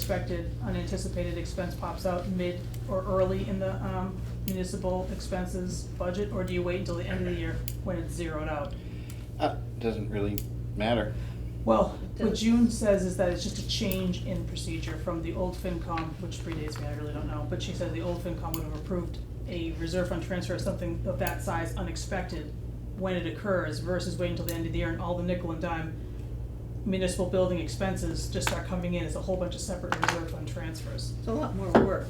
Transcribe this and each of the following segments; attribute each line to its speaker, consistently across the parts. Speaker 1: unexpected, unanticipated expense pops out mid or early in the um, municipal expenses budget? Or do you wait until the end of the year when it's zeroed out?
Speaker 2: Uh, Doesn't really matter.
Speaker 1: Well, what
Speaker 3: Does-
Speaker 1: June says is that it's just a change in procedure from the old FinCom, which predates me, I really don't know, but she said the old FinCom would have approved a reserve fund transfer of something of that size unexpected when it occurs versus waiting until the end of the year and all the nickel and dime municipal building expenses just start coming in as a whole bunch of separate reserve fund transfers.
Speaker 3: It's a lot more work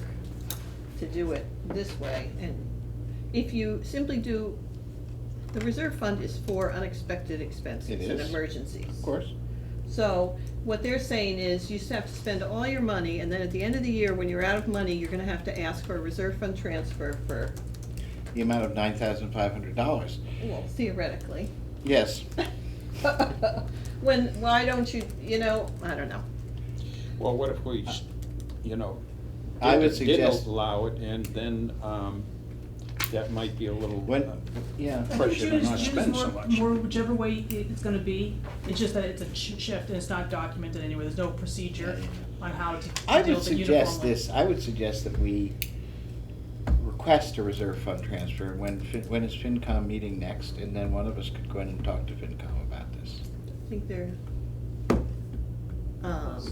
Speaker 3: to do it this way, and if you simply do, the reserve fund is for unexpected
Speaker 2: It
Speaker 3: expenses and
Speaker 2: is.
Speaker 3: emergencies.
Speaker 2: Of course,
Speaker 3: So, what they're saying is, you just have to spend all your money, and then at the end of the year, when you're out of money, you're gonna have to ask for a reserve fund transfer for,
Speaker 2: the amount of nine thousand five hundred dollars.
Speaker 3: well, theoretically.
Speaker 2: Yes,
Speaker 3: When, why don't you, you know, I don't know.
Speaker 4: Well, what if we, s- you know,
Speaker 2: I would
Speaker 4: did-
Speaker 2: suggest-
Speaker 4: did allow it, and then um, that might be a little.
Speaker 2: when,
Speaker 4: uh,
Speaker 2: yeah,
Speaker 1: I think
Speaker 4: Pressure to
Speaker 1: June is-
Speaker 4: not
Speaker 1: June is
Speaker 4: spend so
Speaker 1: more-
Speaker 4: much.
Speaker 1: More, whichever way it- it's gonna be, it's just that it's a ch- shift and it's not documented anywhere, there's no procedure
Speaker 2: Yeah, yeah,
Speaker 1: on how to to
Speaker 2: I
Speaker 1: deal
Speaker 2: would
Speaker 1: with it
Speaker 2: suggest
Speaker 1: uniformly.
Speaker 2: this, I would suggest that we request a reserve fund transfer. When, Fin- when is FinCom meeting next? And then one of us could go in and talk to FinCom about this.
Speaker 3: I think they're, um,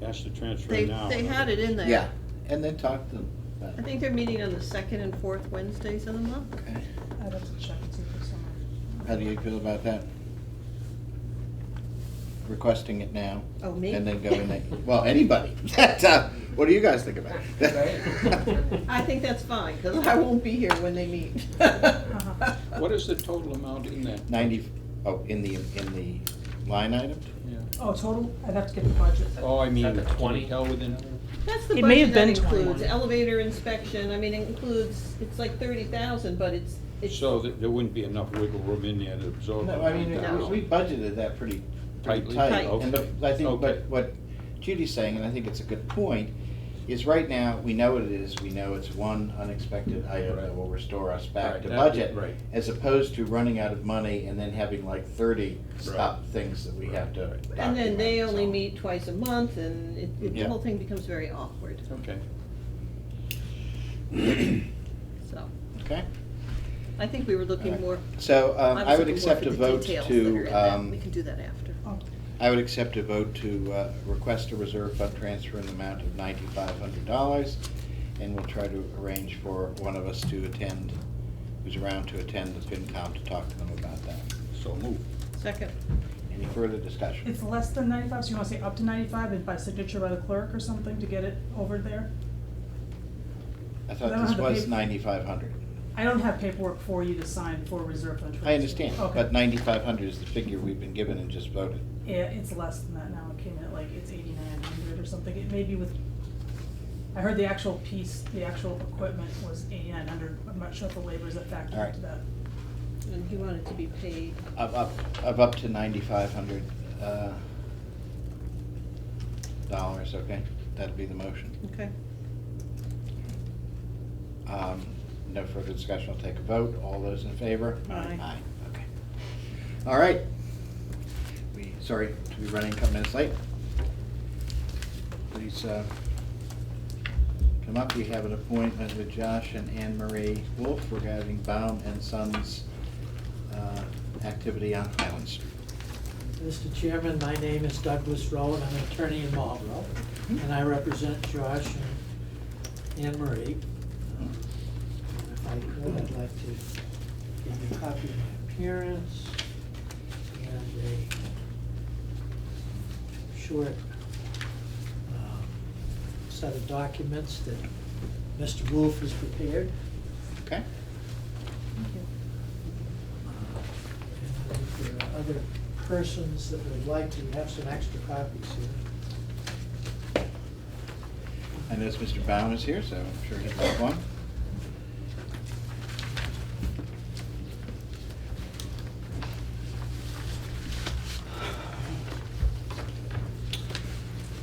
Speaker 4: Ask to transfer
Speaker 3: they,
Speaker 4: now.
Speaker 3: they had it in there.
Speaker 2: Yeah, and then talk to them. about
Speaker 3: I
Speaker 2: it.
Speaker 3: think they're meeting on the second and fourth Wednesdays of the month.
Speaker 2: Okay.
Speaker 1: I'd have to check and see if there's someone.
Speaker 2: How do you feel about that? Requesting it now?
Speaker 3: Oh, me?
Speaker 2: And then go in there, well, anybody. That's, uh, What do you guys think about it?
Speaker 3: I think that's fine, because I won't be here when they meet.
Speaker 4: What is the total amount in that?
Speaker 2: Ninety, oh, in the, in the line item?
Speaker 4: Yeah.
Speaker 1: Oh, total, I'd have to get the budget.
Speaker 4: Oh, I mean,
Speaker 5: Is that the
Speaker 4: can we
Speaker 5: 20?
Speaker 4: Tell within,
Speaker 3: That's the
Speaker 1: It may
Speaker 3: budget
Speaker 1: have
Speaker 3: that
Speaker 1: been 21.
Speaker 3: includes elevator inspection, I mean, it includes, it's like thirty thousand, but it's, it's,
Speaker 4: so that there wouldn't be enough wiggle room in there to absorb.
Speaker 2: No,
Speaker 4: the
Speaker 2: I mean,
Speaker 3: No.
Speaker 2: we we budgeted that pretty, pretty
Speaker 4: Tightly?
Speaker 2: tight.
Speaker 3: Tight.
Speaker 2: And the- I think,
Speaker 4: Okay.
Speaker 2: but what Judy's saying, and I think it's a good point, is right now, we know what it is, we know it's one unexpected item that
Speaker 4: Right.
Speaker 2: will restore us back
Speaker 4: Right,
Speaker 2: to
Speaker 4: that-
Speaker 2: budget.
Speaker 4: right.
Speaker 2: As opposed to running out of money and then having like thirty stop
Speaker 4: Right.
Speaker 2: things that we
Speaker 4: Right,
Speaker 2: have to
Speaker 4: right.
Speaker 2: document.
Speaker 3: and then they only
Speaker 2: so.
Speaker 3: meet twice a month, and it- it, the
Speaker 2: Yeah.
Speaker 3: whole thing becomes very awkward,
Speaker 4: Okay.
Speaker 3: so.
Speaker 2: Okay,
Speaker 3: I think we were looking
Speaker 2: Alright.
Speaker 3: more.
Speaker 2: so um,
Speaker 3: was
Speaker 2: I would
Speaker 3: looking more
Speaker 2: accept
Speaker 3: for
Speaker 2: a
Speaker 3: the
Speaker 2: vote
Speaker 3: details that are in
Speaker 2: to,
Speaker 3: that.
Speaker 2: um,
Speaker 3: We can do that after.
Speaker 1: Oh,
Speaker 2: I would accept a vote to uh, request a reserve fund transfer in the amount of ninety-five hundred dollars, and we'll try to arrange for one of us to attend, who's around to attend the FinCom to talk to them about that.
Speaker 4: So move.
Speaker 3: Second,
Speaker 2: Any further discussion?
Speaker 1: It's less than ninety-five, so you wanna say up to ninety-five and by signature by the clerk or something to get it over there?
Speaker 2: I
Speaker 1: I
Speaker 2: thought
Speaker 1: don't
Speaker 2: this
Speaker 1: have the
Speaker 2: was
Speaker 1: paper.
Speaker 2: ninety-five hundred.
Speaker 1: I don't have paperwork for you to sign for reserve fund transfer.
Speaker 2: I understand, but
Speaker 1: Okay.
Speaker 2: ninety-five hundred is the figure we've been given and just voted.
Speaker 1: Yeah, it's less than that now, it came in at like, it's eighty-nine hundred or something, it may be with, I heard the actual piece, the actual equipment was eighty-nine hundred, I'm not sure if the labor is a factor
Speaker 2: All right.
Speaker 1: into that.
Speaker 3: and he wanted to be paid,
Speaker 2: Of up, of up to ninety-five hundred uh, dollars, okay? That'd be the motion.
Speaker 3: okay?
Speaker 2: Um, No further discussion, I'll take a vote. All those in favor?
Speaker 3: Aye.
Speaker 2: Aye, okay. All right. We, sorry to be running a couple minutes late. Please uh, come up. We have an appointment with Josh and Anne Marie Wolf regarding Baum and Sons uh, activity on Highland Street.
Speaker 6: Mr. Chairman, my name is Douglas Rowe, and I'm an attorney in Marlborough, and I represent Josh and Anne Marie. Um, If I could, I'd like to give you a copy of my appearance and a short um, set of documents that Mr. Wolf has prepared.
Speaker 2: Okay?
Speaker 6: Uh, And if there are other persons that would like to have some extra copies here.
Speaker 2: I notice Mr. Baum is here, so I'm sure he'll have one.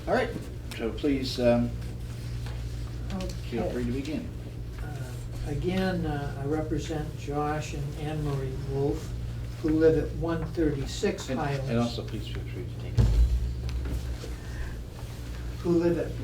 Speaker 2: All right, so please um, feel
Speaker 6: Okay.
Speaker 2: free to begin.
Speaker 6: Uh, Again, uh, I represent Josh and Anne Marie Wolf, who live at one thirty-six
Speaker 2: And
Speaker 6: Highlands.
Speaker 2: and also, please feel free to take it.
Speaker 6: who live at